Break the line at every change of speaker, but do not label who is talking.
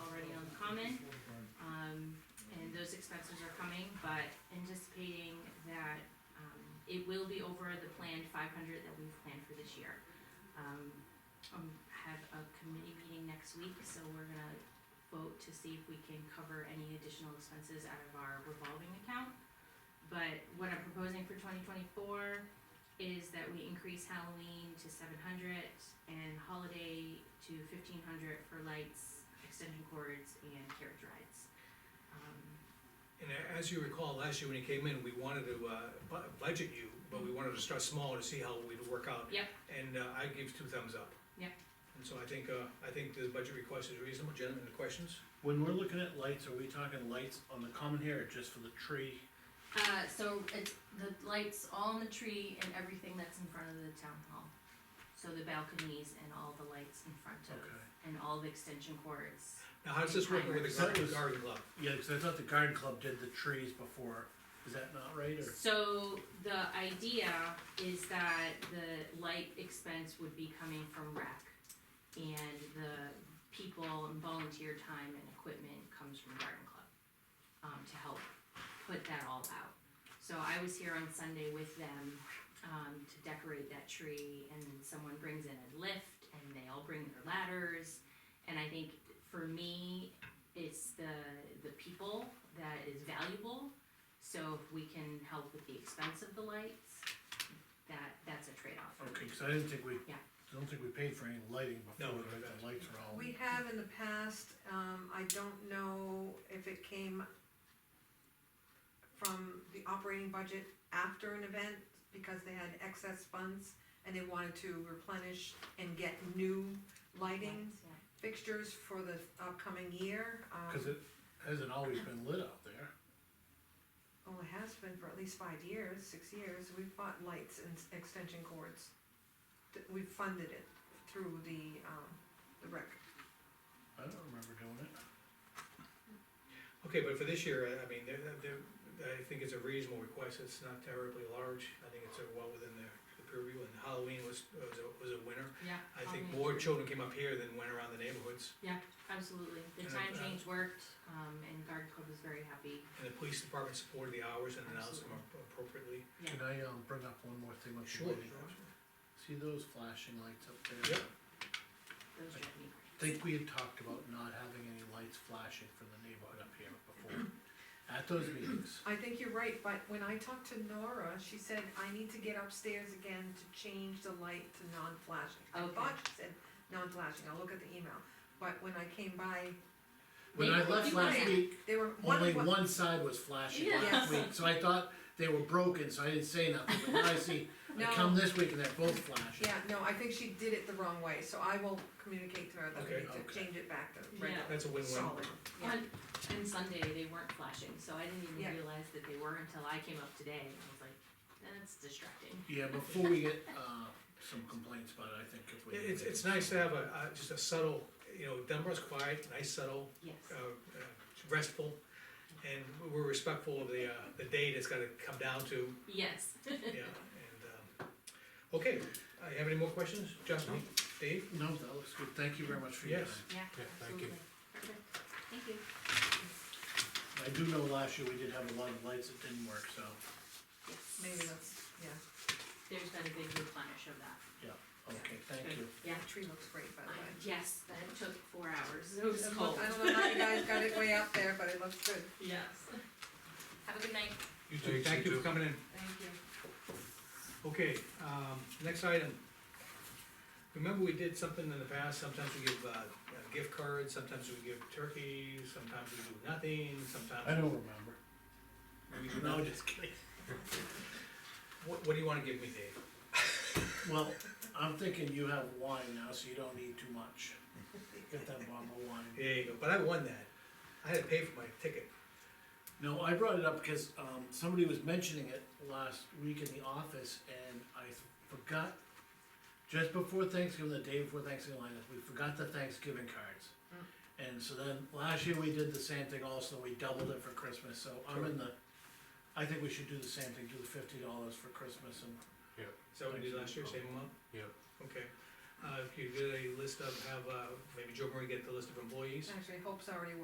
common. Um, and those expenses are coming, but anticipating that, um, it will be over the planned five hundred that we've planned for this year. Um, um, have a committee meeting next week, so we're gonna vote to see if we can cover any additional expenses out of our revolving account. But what I'm proposing for twenty twenty-four is that we increase Halloween to seven hundred and holiday to fifteen hundred for lights, extension cords, and carriage rides. Um,
And a- as you recall, last year when you came in, we wanted to, uh, bu- budget you, but we wanted to start small to see how we'd work out.
Yep.
And, uh, I give two thumbs up.
Yep.
And so I think, uh, I think the budget request is reasonable, gentlemen, any questions?
When we're looking at lights, are we talking lights on the common here or just for the tree?
Uh, so it's the lights all on the tree and everything that's in front of the town hall. So the balconies and all the lights in front of,
Okay.
and all the extension cords.
Now, how's this working with the
That
garden,
was-
garden club?
Yeah, cause I thought the garden club did the trees before, is that not right, or?
So the idea is that the light expense would be coming from rec. And the people and volunteer time and equipment comes from garden club, um, to help put that all out. So I was here on Sunday with them, um, to decorate that tree and someone brings in a lift and they all bring their ladders. And I think for me, it's the, the people that is valuable so if we can help with the expense of the lights, that, that's a trade-off.
Okay, cause I didn't think we,
Yeah.
don't think we paid for any lighting before,
No, we
right,
didn't.
the lights are all.
We have in the past, um, I don't know if it came from the operating budget after an event, because they had excess funds and they wanted to replenish and get new lighting
Lights, yeah.
fixtures for the upcoming year. um,
Cause it hasn't always been lit out there,
Well, oh, it has been for at least five years, six years, we've bought lights and s- extension cords. Th- We've funded it through the, um, the rec.
I don't remember doing it.
Okay, but for this year, uh, I- I mean, they're, they're, I think it's a reasonable request, it's not terribly large, I think it's uh, well within their the purview, and Halloween was, was a, was a winner.
Yeah.
I think
Halloween
more
was-
children came up here than went around the neighborhoods,
Absolutely, the
And,
time
uh,
change worked, um, and Garden Club was very happy,
and the police department supported the hours and announced them appropriately.
yeah.
Can I, um, bring up one more thing with the
Sure.
lighting? See those flashing lights up there?
Yep.
Those drive me
Think we had talked about not having any lights flashing from the neighborhood up here before, at those meetings.
I think you're right, but when I talked to Nora, she said, I need to get upstairs again to change the light to non-flashing. I
Okay.
thought she said non-flashing, I'll look at the email, but when I came by,
When I
Maybe
left
we'll do
last
that.
week,
they were, one
Only
of, what-
Oh, one side was flashing
Yeah.
last week, so I thought they were broken, so I didn't say nothing, but now I see, I come
No.
this week and they're both flashing.
yeah, no, I think she did it the wrong way, so I will communicate to her that we
Okay.
need to
Okay.
change it back to
Yeah.
regular,
That's a win-win.
solid, yeah.
On, on Sunday, they weren't flashing, so I didn't
Yeah.
even realize that they were until I came up today, and I was like, that's distracting.
Yeah, before we get, uh, some complaints about it, I think if we.
It- It's, it's nice to have a, uh, just a subtle, you know, Dunbar's quiet, nice subtle,
Yes,
uh, uh, restful, and we're respectful of the, uh, the date it's gotta come down to,
yes.
yeah, and, um, okay, uh, you have any more questions, Justin, Dave?
No, that looks good, thank you very much for your time.
Yes.
Yeah,
Yeah, thank
absolutely.
you.
Perfect. Thank you.
I do know last year we did have a lot of lights that didn't work, so,
Yes.
Maybe that's, yeah,
There's been a big replenish of that.
okay, thank you.
Yeah.
the tree looks great, by the way.
Yes, that took four hours, it was
It
cold.
look- I don't know how you guys got it way up there, but it looks good,
Yes. Have a good night.
You too,
Thanks,
thank
you
you for
too.
coming in.
thank you.
Okay, um, next item. Remember we did something in the past, sometimes we give, uh, uh, gift cards, sometimes we give turkeys, sometimes we do nothing,
I
sometimes
don't remember.
we do
No,
nothing.
just kidding.
What, what do you wanna give me, Dave?
Well, I'm thinking you have wine now, so you don't need too much. Get that bottle of wine.
There you go, but I won that. I had to pay for my ticket.
No, I brought it up because, um, somebody was mentioning it last week in the office and I forgot. Just before Thanksgiving, the day before Thanksgiving, like, we forgot the Thanksgiving cards. And so then, last year we did the same thing also, we doubled it for Christmas, so I'm in the, I think we should do the same thing, do the fifty dollars for Christmas and.
Is that what we did last year, same amount?
Yep.
Okay. Uh, if you get a list of, have, uh, maybe Joe Marie get the list of employees?
Actually, Hope's already